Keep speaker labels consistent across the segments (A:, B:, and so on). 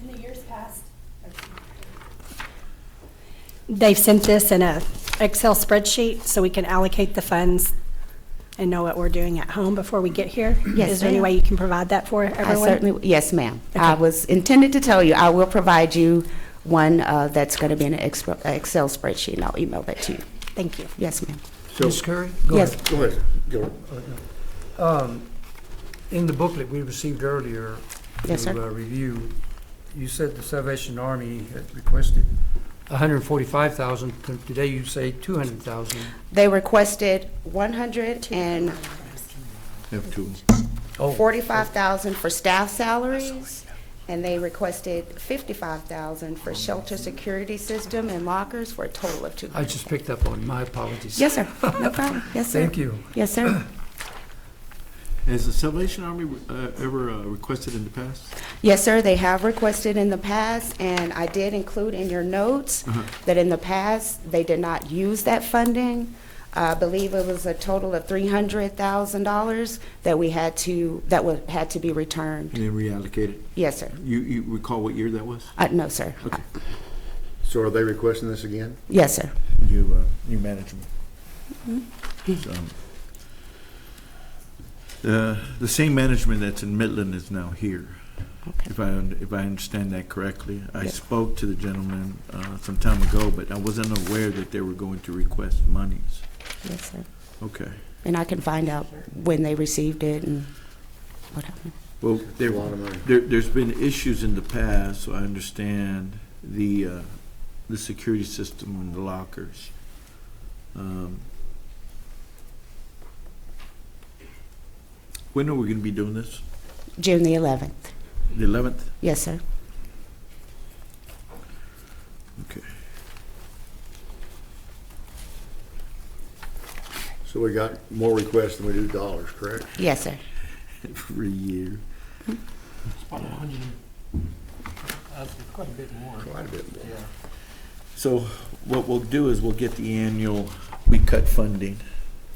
A: two years past. They've sent this in a Excel spreadsheet so we can allocate the funds and know what we're doing at home before we get here.
B: Yes,
A: Is there any
B: ma'am.
A: way you can provide that for
B: I
A: everyone?
B: certainly, yes, ma'am. I was intended to tell you, I will provide you one uh, that's going to be in an expro- uh, Excel spreadsheet, and I'll email that to you.
A: Thank you.
B: Yes, ma'am.
C: So,
D: Ms. Curry? Go
B: Yes,
C: go ahead, go ahead.
D: Um, In the booklet we received earlier.
B: Yes, sir.
D: To uh, review, you said the Salvation Army had requested 145,000. T- Today you say 200,000.
B: they requested 145,000
C: Have two.
D: Oh,
B: for staff salaries, and they requested 55,000 for shelter security system and lockers, for a total of two.
D: I just picked up on, it. my apologies.
B: Yes, sir. No problem. Yes, sir.
D: Thank you.
B: Yes, sir.
C: Has the Salvation Army uh, ever uh, requested in the past?
B: Yes, sir, they have requested in the past, and I did include in your notes
C: Uh-huh.
B: that in the past, they did not use that funding. I believe it was a total of three hundred thousand dollars that we had to, that would, had to be returned.
C: And then reallocated?
B: Yes, sir.
C: You, you recall what year that was?
B: Uh, no, sir.
C: Okay.
E: So are they requesting this again?
B: Yes, sir.
F: new, uh, new management. Um, The, the same management that's in Midland is now here,
B: Okay.
F: if I, un- if I understand that correctly. I
B: Yeah.
F: spoke to the gentleman, uh, some time ago, but I wasn't aware that they were going to request monies.
B: Yes, sir.
F: Okay.
B: And I can find out when they received it and what happened.
F: Well, there,
E: A lot of money.
F: there, there's been issues in the past, so I understand the, uh, the security system and the lockers. Um, When are we gonna be doing this?
B: June the eleventh.
F: The eleventh?
B: Yes, sir.
E: So we got more requests than we do dollars, correct?
B: Yes, sir.
F: Every year.
D: It's about 100, uh, quite a bit more.
E: Quite a bit more.
D: Yeah.
F: So what we'll do is we'll get the annual, we cut funding,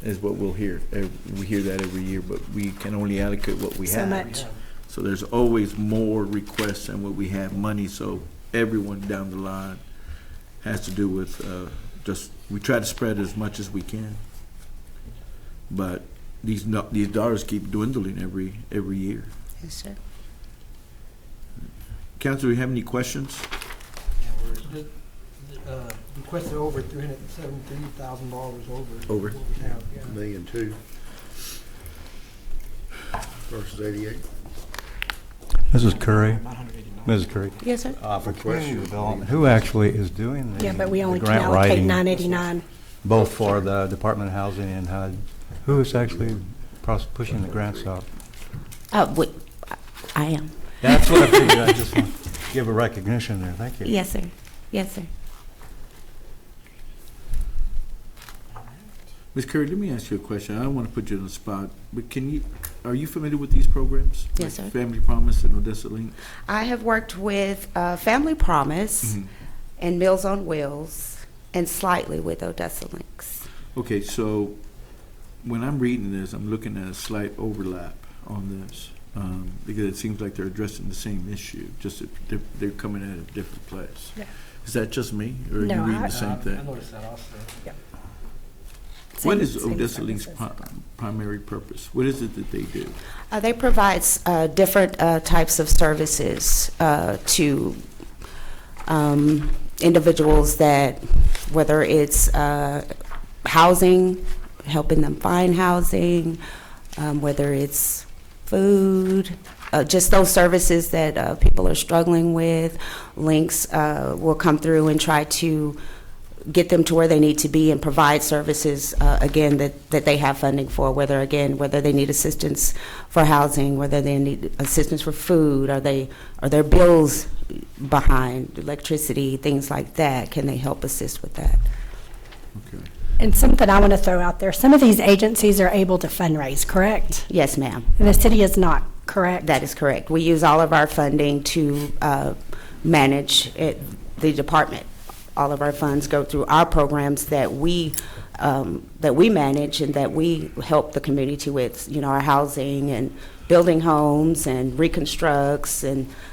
F: is what we'll hear. Eh, We hear that every year, but we can only allocate what we
A: So
F: have.
A: much.
D: Yeah.
F: So there's always more requests than what we have money, so everyone down the line has to do with, uh, just, we try to spread as much as we can. But these, no- these dollars keep dwindling every, every year.
B: Yes, sir.
F: Council, do you have any questions?
G: Yeah, we're, the, uh, requested over three hundred and seventy-three thousand dollars over.
F: Over.
G: What we have, yeah.
E: Million two versus eighty-eight.
H: Mrs. Curry,
G: About hundred eighty-nine.
H: Mrs. Curry,
B: Yes, sir.
H: uh, for community
E: Question.
H: development, who actually is doing the
A: Yeah, but we
H: the
A: only can
H: grant
A: allocate
H: writing,
A: 989.
H: both for the Department of Housing and HUD? Who is actually pros- pushing the grants out?
B: Uh, wait, I- I am.
H: That's what I figured, I just want to give a recognition there, thank you.
B: Yes, sir. Yes, sir.
F: Ms. Curry, let me ask you a question. I don't want to put you on the spot, but can you, are you familiar with these programs?
B: Yes,
F: Like
B: sir.
F: Family Promise and Odessa Link?
B: I have worked with uh, Family Promise
F: Mhm.
B: and Meals on Wheels and slightly with Odessa Links.
F: Okay, so when I'm reading this, I'm looking at a slight overlap on this um, because it seems like they're addressing the same issue, just that they're, they're coming at a different place.
A: Yeah.
F: Is that just me, or are you
A: No,
F: reading
A: I- um,
F: the same
G: Uh, I
F: thing?
G: noticed that also.
F: What
A: Same-
F: is
A: same
F: Odessa Link's pri-
A: services.
F: primary purpose? What is it that they do?
B: Uh, they provide uh, different uh, types of services uh, to um, individuals that, whether it's uh, housing, helping them find housing, um, whether it's food, uh, just those services that uh, people are struggling with. Links uh, will come through and try to get them to where they need to be and provide services, uh, again, that, that they have funding for, whether, again, whether they need assistance for housing, whether they need assistance for food, are they, are their bills behind, electricity, things like that, can they help assist with that?
F: Okay.
A: And something I want to throw out there, some of these agencies are able to fundraise, correct?
B: Yes, ma'am.
A: And the city is not, correct?
B: That is correct. We use all of our funding to uh, manage it- the department. All of our funds go through our programs that we, um, that we manage and that we help the community with, you know, our housing and building homes and reconstructs and